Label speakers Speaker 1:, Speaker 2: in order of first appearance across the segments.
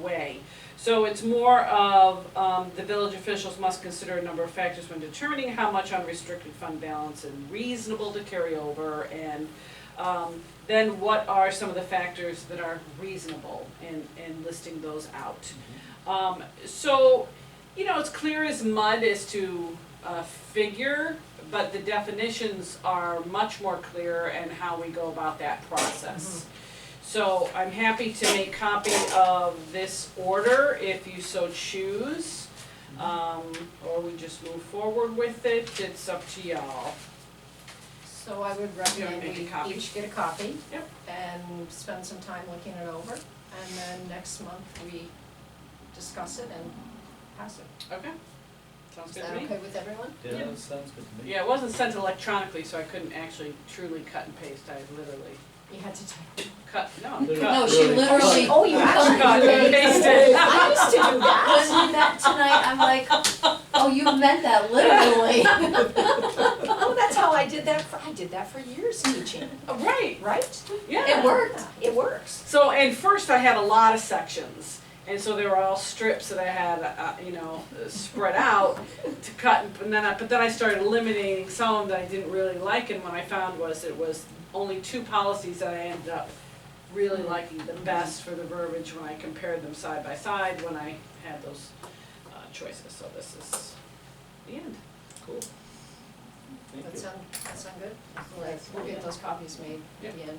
Speaker 1: way. So it's more of, um, the village officials must consider a number of factors when determining how much unrestricted fund balance and reasonable to carry over and, um, then what are some of the factors that are reasonable and, and listing those out. Um, so, you know, it's clear as mud as to, uh, figure, but the definitions are much more clear and how we go about that process. So I'm happy to make copy of this order if you so choose. Um, or we just move forward with it, it's up to y'all.
Speaker 2: So I would
Speaker 1: Yeah,
Speaker 2: recommend
Speaker 1: make a
Speaker 2: we
Speaker 1: copy.
Speaker 2: each get a copy.
Speaker 1: Yep.
Speaker 2: And spend some time looking it over, and then next month we discuss it and pass it.
Speaker 1: Okay. Sounds
Speaker 2: Is
Speaker 1: good to
Speaker 2: that
Speaker 1: me?
Speaker 2: okay with everyone?
Speaker 3: Yeah, that sounds good to me.
Speaker 1: Yeah, it wasn't sent electronically, so I couldn't actually truly cut and paste, I literally
Speaker 2: You had to type.
Speaker 1: cut, no,
Speaker 3: Literally.
Speaker 1: cut.
Speaker 4: No, she literally.
Speaker 2: Oh, you actually
Speaker 1: Cut and pasted.
Speaker 2: I used to do that.
Speaker 4: Wasn't that tonight, I'm like, oh, you meant that literally.
Speaker 2: Oh, that's how I did that, for I did that for years teaching,
Speaker 1: Right,
Speaker 2: right?
Speaker 1: yeah.
Speaker 4: It worked.
Speaker 2: It works.
Speaker 1: So, and first I had a lot of sections, and so they were all strips that I had, uh, you know, spread out to cut, and then I, but then I started eliminating some of them that I didn't really like, and what I found was it was only two policies that I ended up really liking the best for the verbiage when I compared them side by side, when I had those uh, choices, so this is the end.
Speaker 3: Cool.
Speaker 2: That
Speaker 3: Thank you.
Speaker 2: sound, that sound good? We'll get those copies made at the end.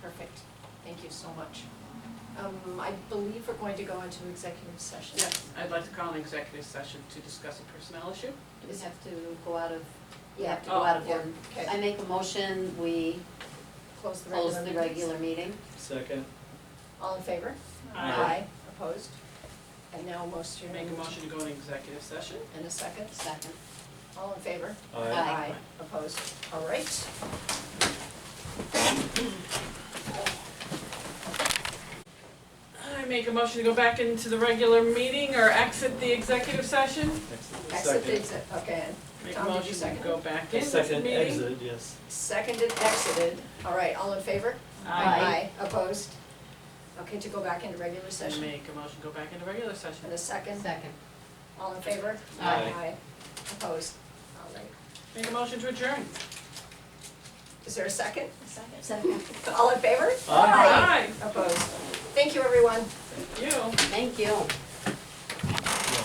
Speaker 2: Perfect. Thank you so much. Um, I believe we're going to go into executive session.
Speaker 1: Yes, I'd like to call an executive session to discuss a personnel issue.
Speaker 5: You just have to go out of, you
Speaker 2: Yeah,
Speaker 5: have to go out of
Speaker 2: Oh, yeah,
Speaker 5: order. I
Speaker 2: okay.
Speaker 5: make a motion, we
Speaker 2: Close the regular
Speaker 5: close the
Speaker 2: meetings.
Speaker 5: regular meeting.
Speaker 3: Second,
Speaker 2: All in favor?
Speaker 1: I
Speaker 2: Opposed? And now most of your.
Speaker 1: Make a motion to go into executive session.
Speaker 2: And a second?
Speaker 5: Second.
Speaker 2: All in favor?
Speaker 3: aye.
Speaker 2: Opposed? All right.
Speaker 1: I make a motion to go back into the regular meeting or exit the executive session.
Speaker 3: Exit.
Speaker 2: Exit the exit, okay.
Speaker 1: Make a
Speaker 2: Tom, did you
Speaker 1: motion to
Speaker 2: second?
Speaker 1: go back
Speaker 3: Second,
Speaker 1: into the
Speaker 3: second
Speaker 1: meeting.
Speaker 3: exit, yes.
Speaker 2: Seconded, exited. All right, all in favor?
Speaker 1: I
Speaker 2: Opposed? Okay, to go back into regular session.
Speaker 1: Make a motion to go back into regular session.
Speaker 2: And a second?
Speaker 5: Second.
Speaker 2: All in favor?
Speaker 3: Aye.
Speaker 2: Opposed? All right.
Speaker 1: Make a motion to adjourn.
Speaker 2: Is there a second?
Speaker 5: Second.
Speaker 2: All in favor?
Speaker 3: Aye.
Speaker 2: Opposed? Thank you, everyone.
Speaker 1: Aye, you.
Speaker 5: Thank you.